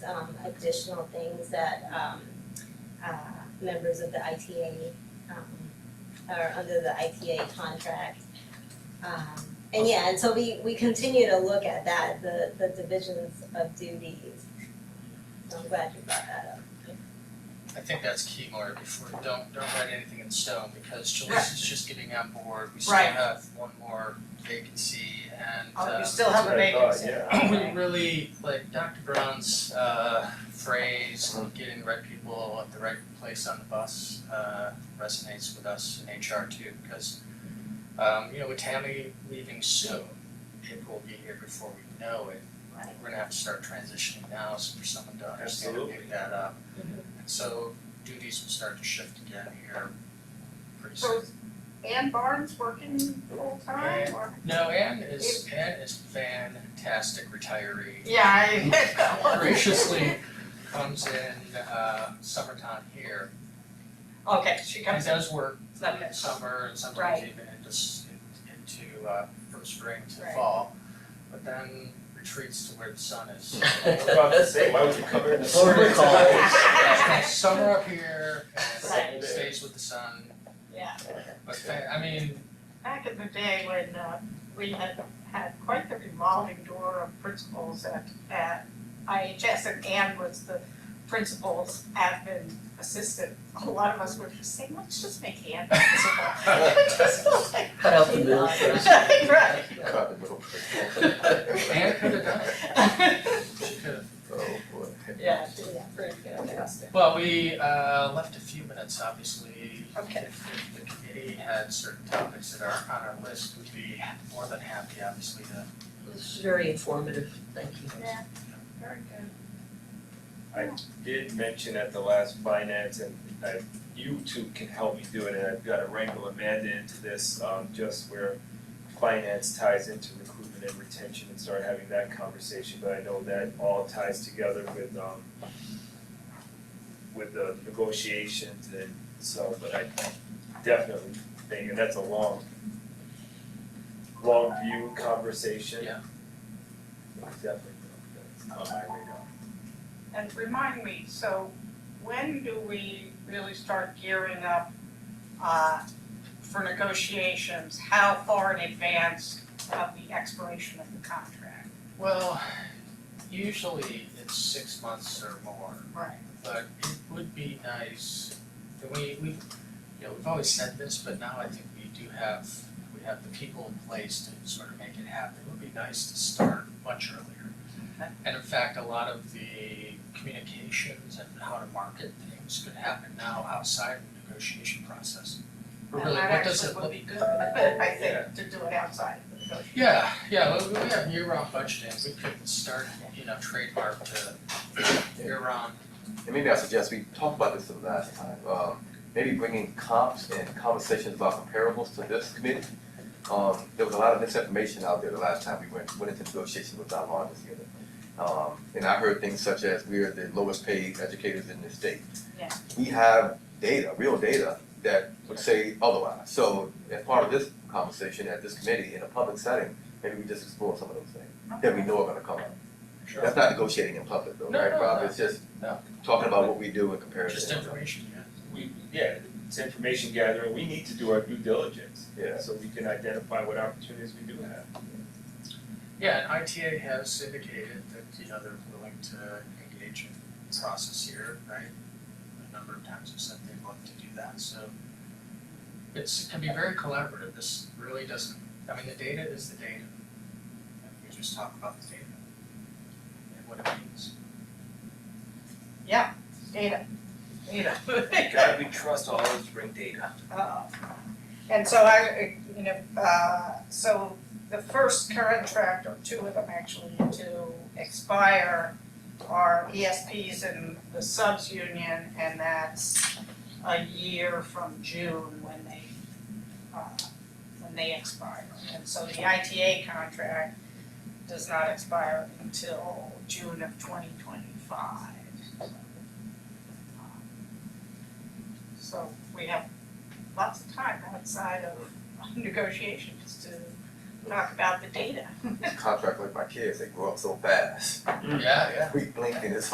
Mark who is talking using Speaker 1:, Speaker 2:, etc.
Speaker 1: um, additional things that um uh members of the ITA um are under the ITA contract. Um and yeah, and so we we continue to look at that, the the divisions of duties. So I'm glad you brought that up.
Speaker 2: I think that's key, Maura, before, don't, don't write anything in stone, because Jalissa's just getting on board, we still
Speaker 3: Right.
Speaker 2: have one more vacancy, and,
Speaker 3: Oh, you
Speaker 2: uh,
Speaker 3: still have a
Speaker 4: Um, That's what I thought,
Speaker 3: vacancy.
Speaker 2: we really, like, Dr. Brown's, uh, phrase, of getting the right people at the right place on the bus, uh, resonates with us in HR too, because, um, you know, with Tammy leaving soon, it will be here before we know it,
Speaker 1: Right.
Speaker 2: we're gonna have to start transitioning now, so for someone to understand and
Speaker 4: Absolutely.
Speaker 2: pick that up. And so duties will start to shift again here pretty
Speaker 5: So
Speaker 2: soon.
Speaker 5: is Ann Barnes working full time or?
Speaker 2: No, Anne is, Anne is fantastic retiree.
Speaker 3: Yeah, I.
Speaker 2: Graciously comes in, uh, summertime here.
Speaker 3: Okay, she
Speaker 2: She
Speaker 3: comes in,
Speaker 2: does work
Speaker 3: it's not
Speaker 2: in
Speaker 3: bad.
Speaker 2: summer and sometimes even into, s- into, uh, from spring to
Speaker 3: Right.
Speaker 2: fall. But then retreats to where the sun is.
Speaker 4: I was about to say, why would you cover in the summer?
Speaker 2: Summer up here
Speaker 3: Right.
Speaker 2: and stays with the sun.
Speaker 3: Yeah.
Speaker 2: But fa- I mean,
Speaker 3: Back in the day when uh, we had had quite the revolving door of principals at at IHS and Ann was the principal's admin assistant. A lot of us were just saying, let's just make Ann principal. It just felt like.
Speaker 6: Cut out the middle first.
Speaker 3: Right.
Speaker 4: Cut the middle.
Speaker 2: Anne could have done it. She could have.
Speaker 4: Oh, boy.
Speaker 3: Yeah, it did, pretty fantastic.
Speaker 2: Well, we uh left a few minutes, obviously.
Speaker 3: Okay.
Speaker 2: If if the committee had certain topics that are on our list, we'd be more than happy, obviously, to.
Speaker 6: This is very informative, thank you.
Speaker 3: Yeah, very good.
Speaker 4: Did mention at the last finance and I, you two can help me do it and I've gotta wrangle Amanda into this, um, just where finance ties into recruitment and retention and start having that conversation, but I know that all ties together with, um, with the negotiations and so, but I definitely think, and that's a long, long view conversation.
Speaker 2: Yeah.
Speaker 4: Definitely, that's on my radar.
Speaker 5: And remind me, so when do we really start gearing up
Speaker 3: uh, for negotiations, how far in advance of the expiration of the contract?
Speaker 2: Well, usually it's six months or more,
Speaker 3: Right.
Speaker 2: but it would be nice, that we we, you know, we've always said this, but now I think we do have, we have the people in place to sort of make it happen. It would be nice to start much earlier.
Speaker 3: Okay.
Speaker 2: And in fact, a lot of the communications and how to market things could happen now outside of the negotiation process. But really, what does it
Speaker 3: That actually would
Speaker 2: look?
Speaker 3: be good, but I think to do it outside of the negotiation.
Speaker 2: Yeah, yeah, well, we have year-round budgeting, we could start, you know, trademark the year-round
Speaker 7: And maybe I suggest we talked about this the last time, um, maybe bringing comps and conversations about comparables to this committee. Um, there was a lot of misinformation out there the last time we went, went into negotiations with our largest unit. Um, and I heard things such as we are the lowest paid educators in the state.
Speaker 3: Yeah.
Speaker 7: We have data, real data, that would say otherwise. So as part of this conversation at this committee in a public setting, maybe we just explore some of those things that we know are gonna come up.
Speaker 2: Sure.
Speaker 7: That's not negotiating in public though,
Speaker 2: No,
Speaker 7: right,
Speaker 2: no,
Speaker 7: Rob?
Speaker 2: no.
Speaker 7: It's just
Speaker 2: No.
Speaker 7: talking about what we do and comparing it.
Speaker 2: Just information, yeah.
Speaker 4: we, yeah, it's information gathering, we need to do our due diligence.
Speaker 7: Yeah.
Speaker 4: So we can identify what opportunities we do have.
Speaker 2: Yeah, and ITA has indicated that, you know, they're willing to engage in the process here, right? A number of times have said they'd love to do that, so it's, it can be very collaborative, this really doesn't, I mean, the data is the data. And we just talk about the data and what it means.
Speaker 3: Data, data.
Speaker 4: God, we trust all those bring data.
Speaker 3: Uh, And so I, you know, uh, so the first contract, or two of them actually, to expire are ESPs and the subs union, and that's a year from June when they, uh, when they expire. And so the ITA contract does not expire until June of twenty twenty-five. So we have lots of time outside of negotiations to talk about the data.
Speaker 7: Contract like my kids, they grow up so fast.
Speaker 2: Yeah, yeah.
Speaker 7: We blink and it's